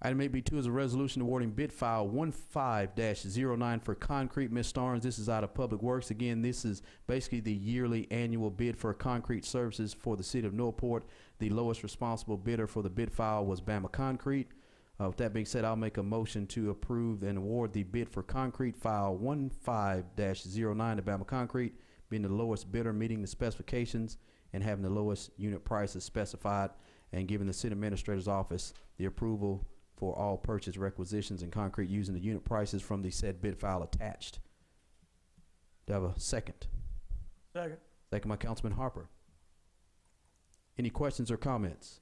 Item 8B2 is a resolution awarding bid file 15-09 for concrete. Ms. Starnes, this is out of Public Works. Again, this is basically the yearly annual bid for concrete services for the city of Norport. The lowest responsible bidder for the bid file was Bama Concrete. Uh, With that being said, I'll make a motion to approve and award the bid for concrete file 15-09 to Bama Concrete, being the lowest bidder, meeting the specifications, and having the lowest unit prices specified, and giving the city administrator's office the approval for all purchase requisitions and concrete using the unit prices from the said bid file attached. Do I have a second? Second. Second by Councilman Harper. Any questions or comments?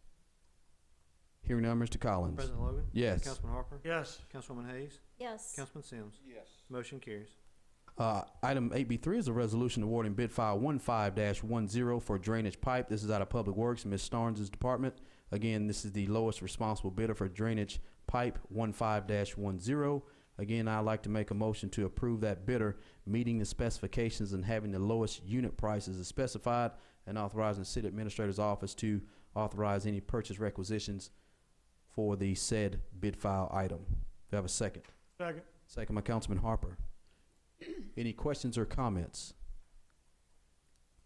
Hearing none, Mr. Collins. President Logan? Yes. Councilman Harper? Yes. Councilwoman Hayes? yes, Councilman Sims? yes, Motion carries. Uh, item eight B three is a resolution awarding bid file one one zero for drainage pipe. This is out of Public Works, Ms. Starnes' department. Again, this is the lowest responsible bidder for drainage pipe one one zero. Again, I'd like to make a motion to approve that bidder, meeting the specifications and having the lowest unit prices as specified, and authorizing the city administrator's office to authorize any purchase requisitions for the said bid file item. Do I have a second? Second. Second by Councilman Harper. Any questions or comments?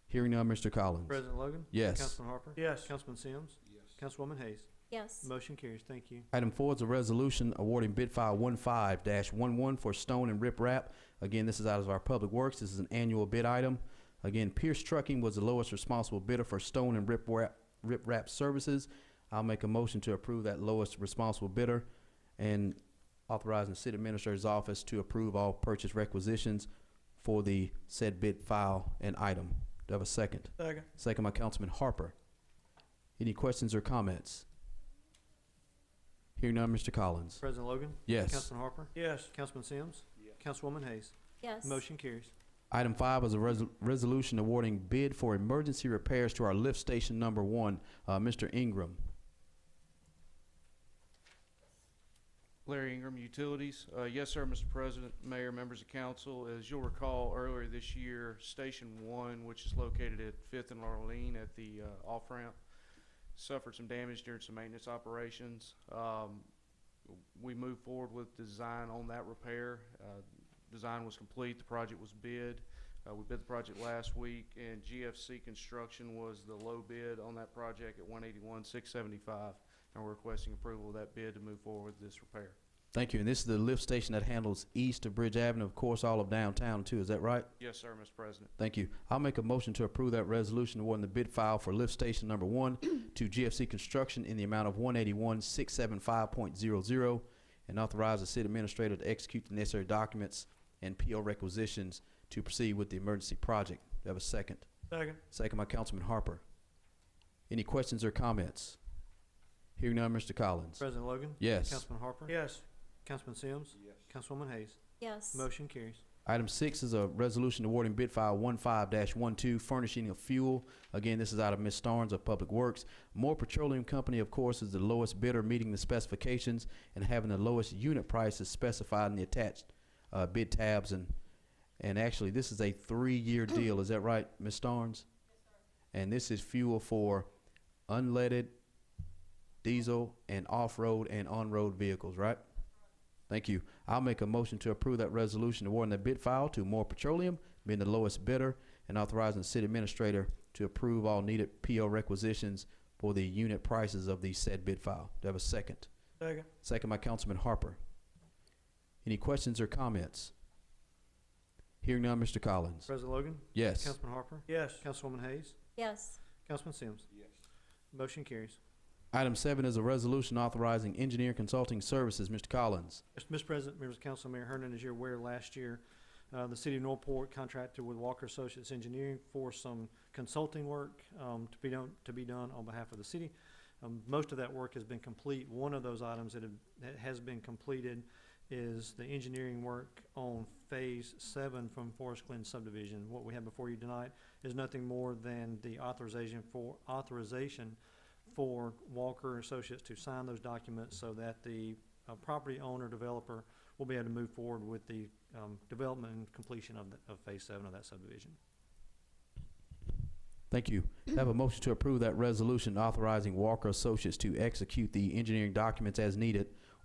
Hearing none, Mr. Collins. President Logan? Yes. Councilman Harper? Yes. Councilman Sims? yes. Councilwoman Hayes? yes, Motion carries. Thank you. Item four is a resolution awarding bid file one five dash one one for stone and riprap. Again, this is out of our public works. This is an annual bid item. Again, Pierce Trucking was the lowest responsible bidder for stone and riprap, riprap services. I'll make a motion to approve that lowest responsible bidder and authorizing the city administrator's office to approve all purchase requisitions for the said bid file and item. Do I have a second? Second. Second by Councilman Harper. Any questions or comments? Hearing none, Mr. Collins. President Logan? Yes. Councilman Harper? Yes. Councilman Sims? Yes. Councilwoman Hayes? yes. Motion carries. Item five is a res- resolution awarding bid for emergency repairs to our lift station number one. Uh, Mr. Ingram. Larry Ingram, Utilities. Uh, Yes, sir, Mr. President, Mayor, members of council. As you'll recall, earlier this year, Station One, which is located at Fifth and Laurelene at the uh, off-ramp, suffered some damage during some maintenance operations. Um, We moved forward with design on that repair. Uh, Design was complete, the project was bid. Uh, We bid the project last week, and GFC Construction was the low bid on that project at one eighty-one, six seventy-five and we're requesting approval of that bid to move forward with this repair. Thank you. And this is the lift station that handles east of Bridge Avenue, of course, all of downtown too. Is that right? Yes, sir, Mr. President. Thank you. I'll make a motion to approve that resolution awarding the bid file for lift station number one to GFC Construction in the amount of one eighty-one, six seven five point zero zero and authorize the city administrator to execute the necessary documents and PO requisitions to proceed with the emergency project. Do I have a second? Second. Second by Councilman Harper. Any questions or comments? Hearing none, Mr. Collins. President Logan? Yes. Councilman Harper? Yes. Councilman Sims? Yes. Councilwoman Hayes? Yes, Motion carries. Item six is a resolution awarding bid file one five dash one two furnishing of fuel. Again, this is out of Ms. Starnes of Public Works. Moore Petroleum Company, of course, is the lowest bidder, meeting the specifications and having the lowest unit prices specified in the attached uh, bid tabs. And and actually, this is a three-year deal. Is that right, Ms. Starnes? And this is fuel for unleaded, diesel, and off-road and on-road vehicles, right? Thank you. I'll make a motion to approve that resolution awarding the bid file to More Petroleum, being the lowest bidder, and authorizing the city administrator to approve all needed PO requisitions for the unit prices of the said bid file. Do I have a second? Second. Second by Councilman Harper. Any questions or comments? Hearing none, Mr. Collins. President Logan? Yes. Councilman Harper? Yes. Councilwoman Hayes? yes, Councilman Sims? yes. Motion carries. Item seven is a resolution authorizing engineer consulting services. Mr. Collins. Mr. President, members of council, Mayor Hernan, as you're aware, last year, uh, the city of Norport contracted with Walker Associates Engineering for some consulting work, um, to be done, to be done on behalf of the city. Um, most of that work has been complete. One of those items that have, that has been completed is the engineering work on Phase Seven from Forest Glen subdivision. What we have before you tonight is nothing more than the authorization for, authorization for Walker Associates to sign those documents so that the a uh, property owner, developer will be able to move forward with the um, development and completion of, the- of Phase Seven of that subdivision. Thank you. I Have a motion to approve that resolution authorizing Walker Associates to execute the engineering documents as needed